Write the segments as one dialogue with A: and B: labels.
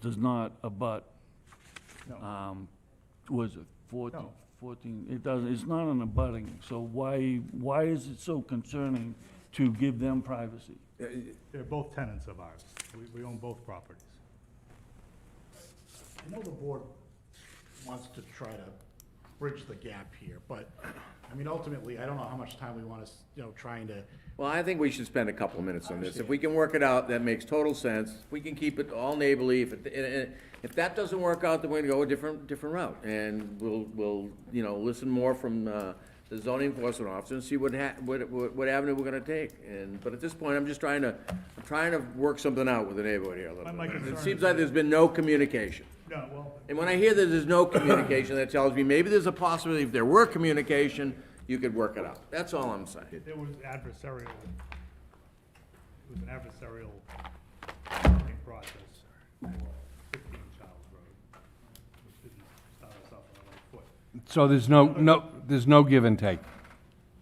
A: does not abut,
B: No,
C: Uh,
A: um, was it fourteen?
B: No.
A: Fourteen, it doesn't, it's not an abutting, so why, why is it so concerning to give them privacy?
B: they're both tenants of ours. We, we own both properties.
D: I know the board wants to try to bridge the gap here, but, I mean, ultimately, I don't know how much time we want to, you know, trying to,
E: Well, I think we should spend a couple of minutes on this. If we can work it out, that makes total sense. We can keep it all neighborly. If, it- and- and if that doesn't work out, then we're gonna go a different, different route. And we'll, we'll, you know, listen more from, uh, the zoning enforcement officer and see what ha, what, what what avenue we're gonna take. And, but at this point, I'm just trying to, I'm trying to work something out with the neighborhood here a
B: My-
E: little
B: my
E: bit.
B: concern
E: It
B: is
E: seems like there's been no communication.
B: No, well,
E: And when I hear that there's no communication, that tells me maybe there's a possibility, if there were communication, you could work it out. That's all I'm saying.
B: it was adversarial. It was an adversarial bargaining process for fifteen Charles Road, which didn't start us off on the right foot.
C: So there's no, no, there's no give and take.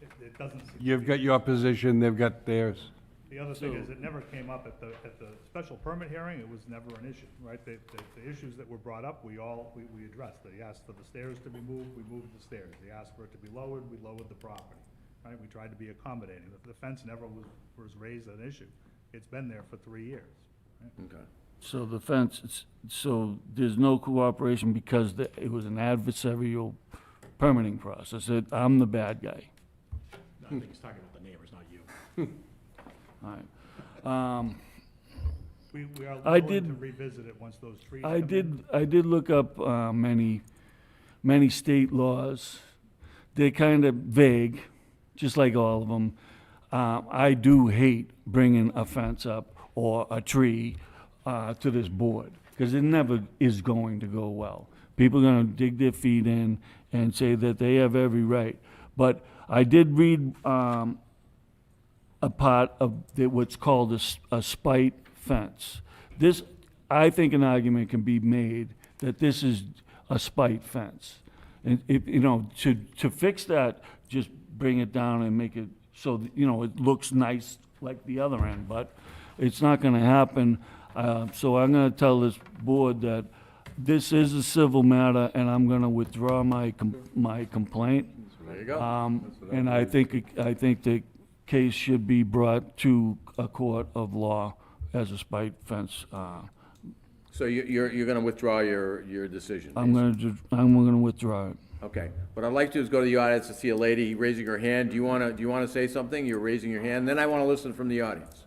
B: It, it doesn't. seem to
C: You've
B: be-
C: got your position, they've got theirs.
B: The other thing is, it never came up at the, at the special permit hearing, it was never an issue, right? The, the, the issues that were brought up, we all, we, we addressed. They asked for the stairs to be moved, we moved the stairs. They asked for it to be lowered, we lowered the property, right? We tried to be accommodating. The- The fence never was, was raised an issue. It's been there for three years. right?
E: Okay.
A: So the fence, it's- so there's no cooperation because the- it was an adversarial permitting process, It- I'm the bad guy.
D: I think he's talking about the neighbors, not you.
A: All right. Um,
B: We, we are
A: I
B: willing to
A: did-
B: revisit it once those trees.
A: I
B: come in.
A: did, I did look up uh, many, many state laws. They're kind of vague, just like all of them. I do hate bringing a fence up or a tree uh, to this board, because it never is going to go well. People are gonna dig their feet in and say that they have every right. But I did read um, a part of the- what's called a s- a spite fence. This, I think an argument can be made that this is a spite fence. And if, you know, to, to fix that, just bring it down and make it so, that, you know, it looks nice like the other end, but it's not gonna happen. Uh, So I'm gonna tell this board that this is a civil matter and I'm gonna withdraw my, com- my complaint.
E: There you go.
A: Um,
E: That's what
A: and I
E: believe.
A: think, it- I think the case should be brought to a court of law as a spite fence. uh,
E: So you- you're, you're going to withdraw your, your decision?
A: I'm
E: basically.
A: gonna, ju- I'm gonna withdraw it.
E: Okay. What I'd like to do is go to the audience and see a lady raising her hand. Do you want to, do you want to say something? You're raising your hand. Then I want to listen from the audience.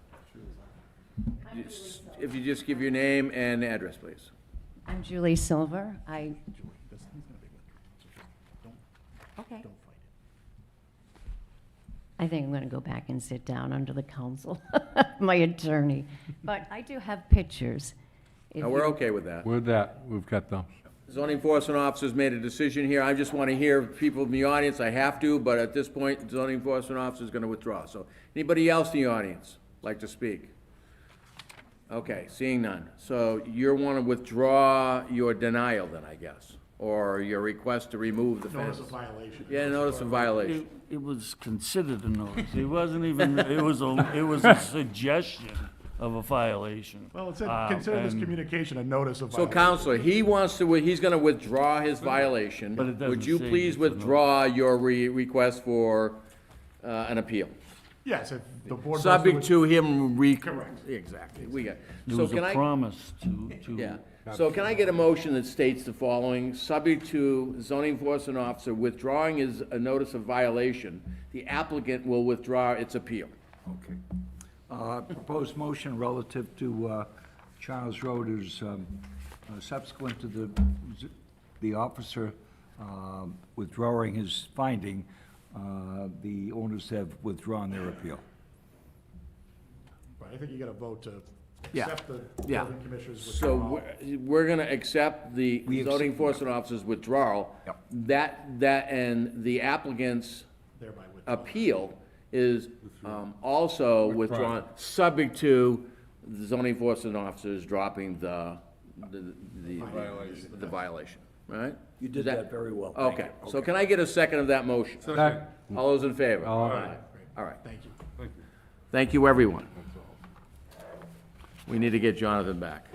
E: Just- If you just give your name and address, please.
F: I'm Julie Silver. I,
D: Julie, this thing's gonna be with you, so just don't,
F: okay.
D: don't fight it.
F: I think I'm going to go back and sit down under the counsel, of my attorney. But I do have pictures. If
E: Now, we're
F: you-
E: okay with that.
C: With that, we've got those.
E: Zoning enforcement officer's made a decision here. I just want to hear people in the audience. I have to, but at this point, zoning enforcement officer's going to withdraw. So anybody else in the audience like to speak? Okay, seeing none. So you're want to withdraw your denial then, I guess, or your request to remove the fence?
D: Notice of violation.
E: Yeah, notice of
A: It,
E: violation.
A: it was considered a notice. It wasn't even, it was a, it was a suggestion of a violation.
D: Well, it said,
A: Uh,
D: consider this
A: and-
D: communication a notice of
E: So
D: violation.
E: counselor, he wants to, he's going to withdraw his violation.
A: But it doesn't
E: Would you
A: say
E: please
A: it's a notice.
E: withdraw your re- request for, uh, an appeal?
D: Yes, if the board. wants
E: Subject
D: to-
E: to him re.
D: Correct.
E: Exactly, we got.
A: It
E: So
A: was
E: can
A: a
E: I,
A: promise to, to.
E: yeah, so can I get a motion that states the following, subject to zoning enforcement officer withdrawing his, a notice of violation, the applicant will withdraw its appeal.
G: Okay. Uh, Proposed motion relative to uh, Charles Road is um, uh, subsequent to the, the officer um, withdrawing his finding, uh, the owners have withdrawn their appeal.
D: Right, I think you gotta vote to
E: Yeah.
D: accept the
E: Yeah.
D: building commissioner's
E: So
D: withdrawal.
E: we're, we're gonna accept the
G: We accept-
E: zoning enforcement officer's withdrawal.
G: Yep.
E: That, that, and the applicant's
D: Thereby withdraw.
E: appeal is um, also withdrawn, subject to the zoning enforcement officers dropping the, the, the the violation, right?
G: You did that very well. Thank
E: Okay,
G: you.
E: so can I get a second of that motion?
C: Second.
E: All those in favor?
C: All
E: right. All right,
D: Thank you.
E: thank you, everyone. We need to get Jonathan back.